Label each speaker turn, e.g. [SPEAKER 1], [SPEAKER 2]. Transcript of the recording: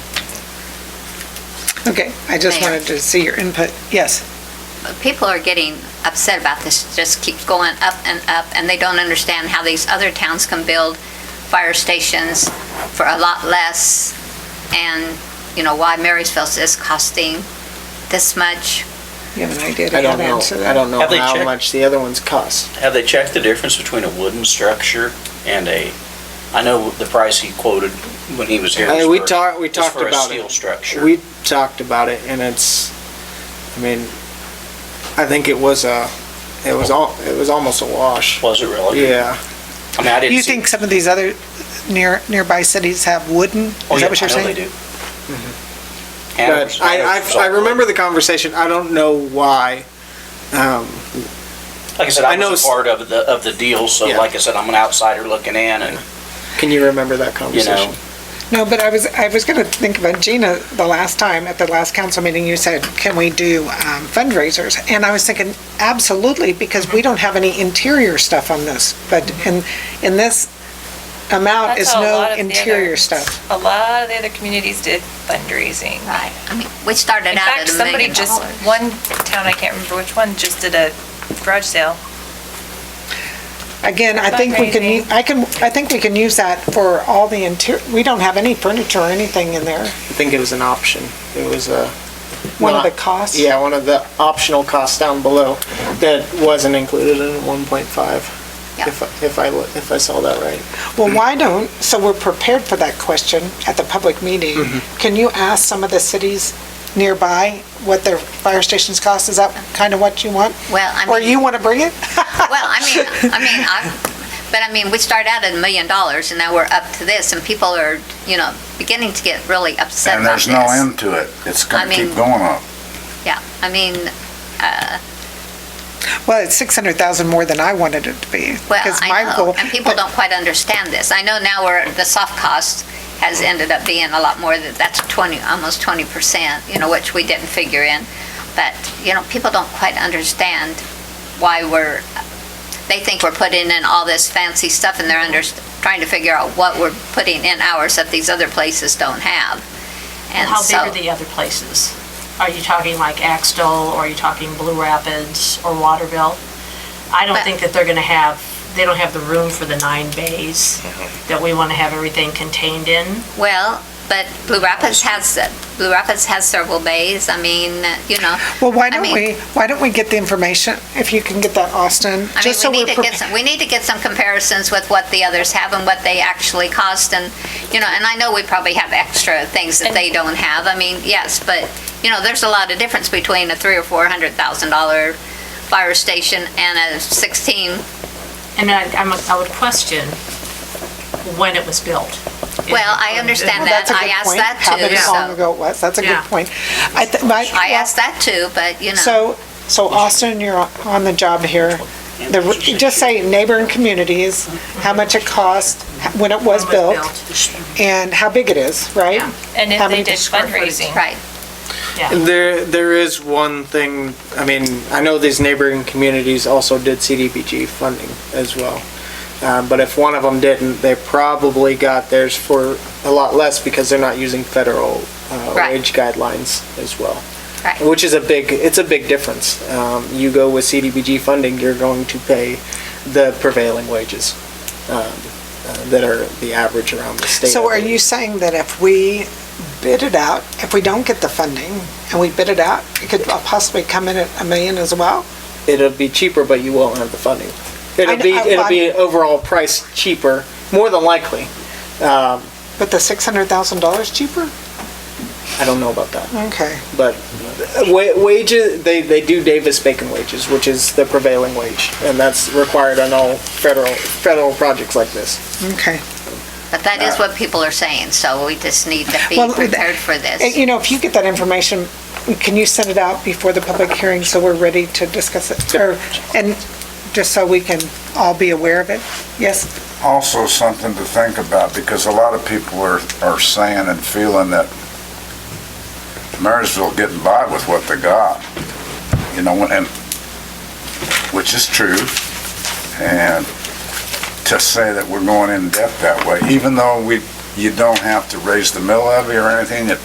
[SPEAKER 1] Okay, I just
[SPEAKER 2] Mayor.
[SPEAKER 1] wanted to see your input. Yes,
[SPEAKER 2] People are getting upset about this, It just keeps going up and up, and they don't understand how these other towns can build fire stations for a lot less, and, you know, why Marysville's is costing this much.
[SPEAKER 1] you have an idea to
[SPEAKER 3] I don't
[SPEAKER 1] that
[SPEAKER 3] know,
[SPEAKER 1] answer?
[SPEAKER 3] I don't know
[SPEAKER 4] Have they
[SPEAKER 3] how
[SPEAKER 4] checked?
[SPEAKER 3] much the other ones cost.
[SPEAKER 4] Have they checked the difference between a wooden structure and a, I know the price he quoted when he was here
[SPEAKER 3] I
[SPEAKER 4] was
[SPEAKER 3] mean, we
[SPEAKER 4] for-
[SPEAKER 3] talked, we
[SPEAKER 4] was
[SPEAKER 3] talked
[SPEAKER 4] for a
[SPEAKER 3] about
[SPEAKER 4] steel
[SPEAKER 3] it.
[SPEAKER 4] structure.
[SPEAKER 3] We talked about it and it's, I mean, I think it was a, it was all, it was almost a wash.
[SPEAKER 4] Was it really?
[SPEAKER 3] Yeah,
[SPEAKER 4] I mean, I didn't
[SPEAKER 1] You
[SPEAKER 4] see.
[SPEAKER 1] think some of these other near, nearby cities have wooden? Is
[SPEAKER 4] Oh, yeah,
[SPEAKER 1] that what you're
[SPEAKER 4] I know
[SPEAKER 1] saying?
[SPEAKER 4] they do.
[SPEAKER 3] but
[SPEAKER 4] Hanover's-
[SPEAKER 3] Mm-hmm. I,
[SPEAKER 4] Hanover's
[SPEAKER 3] I, I
[SPEAKER 4] all-
[SPEAKER 3] remember the conversation. I don't know why. Um,
[SPEAKER 4] Like I said,
[SPEAKER 3] I
[SPEAKER 4] I
[SPEAKER 3] know
[SPEAKER 4] was a
[SPEAKER 3] s-
[SPEAKER 4] part of the, of the deal, so
[SPEAKER 3] Yeah.
[SPEAKER 4] like I said, I'm an outsider looking in and,
[SPEAKER 3] can you remember that
[SPEAKER 4] you know,
[SPEAKER 3] conversation?
[SPEAKER 1] No, but I was, I was gonna think about Gina, the last time, at the last council meeting, you said, can we do um, fundraisers? And I was thinking, absolutely, because we don't have any interior stuff on this, but in, in this amount
[SPEAKER 5] That's
[SPEAKER 1] is
[SPEAKER 5] how a lot
[SPEAKER 1] no
[SPEAKER 5] of the
[SPEAKER 1] interior
[SPEAKER 5] other-
[SPEAKER 1] stuff.
[SPEAKER 5] A lot of the other communities did fundraising.
[SPEAKER 2] Right. I mean, we started
[SPEAKER 5] In
[SPEAKER 2] out
[SPEAKER 5] fact,
[SPEAKER 2] at a
[SPEAKER 5] somebody
[SPEAKER 2] million
[SPEAKER 5] just,
[SPEAKER 2] dollars.
[SPEAKER 5] one town, I can't remember which one, just did a garage sale.
[SPEAKER 1] Again, I think we can, u-
[SPEAKER 5] Fundraising.
[SPEAKER 1] I can, I think we can use that for all the interior, we don't have any furniture or anything in there.
[SPEAKER 3] I think it was an option. It was a.
[SPEAKER 1] One of
[SPEAKER 3] not-
[SPEAKER 1] the costs.
[SPEAKER 3] Yeah, one of the optional costs down below that wasn't included in one point five.
[SPEAKER 2] Yeah.
[SPEAKER 3] If, I- if I, lo- if I saw that right.
[SPEAKER 1] Well, why don't, so we're prepared for that question at the public meeting. Can you ask some of the cities nearby what their fire stations cost? Is that kind of what you want?
[SPEAKER 2] Well, I mean.
[SPEAKER 1] Or you want to bring it?
[SPEAKER 2] Well, I mean, I mean, I, but I mean, we started out at a million dollars and now we're up to this and people are, you know, beginning to get really upset
[SPEAKER 6] And
[SPEAKER 2] about
[SPEAKER 6] there's
[SPEAKER 2] this.
[SPEAKER 6] no end to it. It's
[SPEAKER 2] I
[SPEAKER 6] gonna
[SPEAKER 2] mean-
[SPEAKER 6] keep going up.
[SPEAKER 2] Yeah, I mean, uh,
[SPEAKER 1] Well, it's 600,000 more than I wanted it to be.
[SPEAKER 2] well,
[SPEAKER 1] 'cause my
[SPEAKER 2] I know,
[SPEAKER 1] goal-
[SPEAKER 2] and people don't quite understand this. I know now we're, the soft cost has ended up being a lot more, that that's 20, almost 20%, you know, which we didn't figure in. But, you know, people don't quite understand why we're, they think we're putting in all this fancy stuff and they're under, trying to figure out what we're putting in ours that these other places don't have. And
[SPEAKER 7] How big
[SPEAKER 2] so,
[SPEAKER 7] are the other places? Are you talking like Axtell, or are you talking Blue Rapids, or Waterville? I don't
[SPEAKER 2] But-
[SPEAKER 7] think that they're gonna have, they don't have the room for the nine bays that we wanna have everything contained in.
[SPEAKER 2] well, but Blue Rapids has, Blue Rapids has several bays. I mean, you know.
[SPEAKER 1] Well, why
[SPEAKER 2] I
[SPEAKER 1] don't
[SPEAKER 2] mean-
[SPEAKER 1] we, why don't we get the information, if you can get that, Austin?
[SPEAKER 2] I mean,
[SPEAKER 1] just
[SPEAKER 2] we
[SPEAKER 1] so
[SPEAKER 2] need
[SPEAKER 1] we're
[SPEAKER 2] to get
[SPEAKER 1] prepa-
[SPEAKER 2] some, we need to get some comparisons with what the others have and what they actually cost and, you know, and I know we probably have extra things that they don't have. I mean, yes, but, you know, there's a lot of difference between a three or four hundred thousand dollar fire station and a sixteen.
[SPEAKER 7] And I, I'm, I would question when it was built.
[SPEAKER 2] Well, I understand
[SPEAKER 1] Well,
[SPEAKER 2] that.
[SPEAKER 1] that's a
[SPEAKER 2] I
[SPEAKER 1] good
[SPEAKER 2] asked
[SPEAKER 1] point,
[SPEAKER 2] that
[SPEAKER 1] How
[SPEAKER 2] too,
[SPEAKER 1] many long
[SPEAKER 2] so.
[SPEAKER 1] ago it was, that's a
[SPEAKER 7] Yeah.
[SPEAKER 1] good point. I th- my-
[SPEAKER 2] I asked that too, but, you know,
[SPEAKER 1] So, so Austin, you're on the job here. The, just say neighboring communities, how much it cost, when it was
[SPEAKER 7] When it
[SPEAKER 1] built, and how big it is, right?
[SPEAKER 5] And
[SPEAKER 1] How
[SPEAKER 5] if
[SPEAKER 1] many
[SPEAKER 5] they did
[SPEAKER 1] square
[SPEAKER 5] fundraising.
[SPEAKER 2] right.
[SPEAKER 7] Yeah.
[SPEAKER 3] There, there is one thing, I mean, I know these neighboring communities also did CDBG funding as well. Uh, but if one of them didn't, they probably got theirs for a lot less because they're not using federal, uh,
[SPEAKER 2] Right.
[SPEAKER 3] wage guidelines as well.
[SPEAKER 2] Right.
[SPEAKER 3] Which is a big, it's a big difference. Um, you go with CDBG funding, you're going to pay the prevailing wages, um, uh, that are the average around the state.
[SPEAKER 1] So are you saying that if we bid it out, if we don't get the funding and we bid it out, it could possibly come in at a million as well?
[SPEAKER 3] it'll be cheaper, but you won't have the funding.
[SPEAKER 1] I
[SPEAKER 3] It'll
[SPEAKER 1] kn-
[SPEAKER 3] be,
[SPEAKER 1] I-
[SPEAKER 3] it'll be
[SPEAKER 1] I-
[SPEAKER 3] overall price cheaper, more than likely. Um,
[SPEAKER 1] But the six hundred thousand dollars cheaper?
[SPEAKER 3] I don't know about that,
[SPEAKER 1] Okay.
[SPEAKER 3] but wa- wages, they, they do Davis-Bacon wages, which is the prevailing wage, and that's required on all federal, federal projects like this.
[SPEAKER 1] Okay.
[SPEAKER 2] But that is what people are saying, so we just need to be
[SPEAKER 1] Well,
[SPEAKER 2] prepared for
[SPEAKER 1] Uh,
[SPEAKER 2] this.
[SPEAKER 1] You know, if you get that information, can you send it out before the public hearing so we're ready to discuss it? Or, and just so we can all be aware of it? Yes?
[SPEAKER 6] Also something to think about because a lot of people are, are saying and feeling that Marysville getting by with what they got, you know, and, which is true. And to say that we're going in debt that way, even though we, you don't have to raise the mill levy or anything, it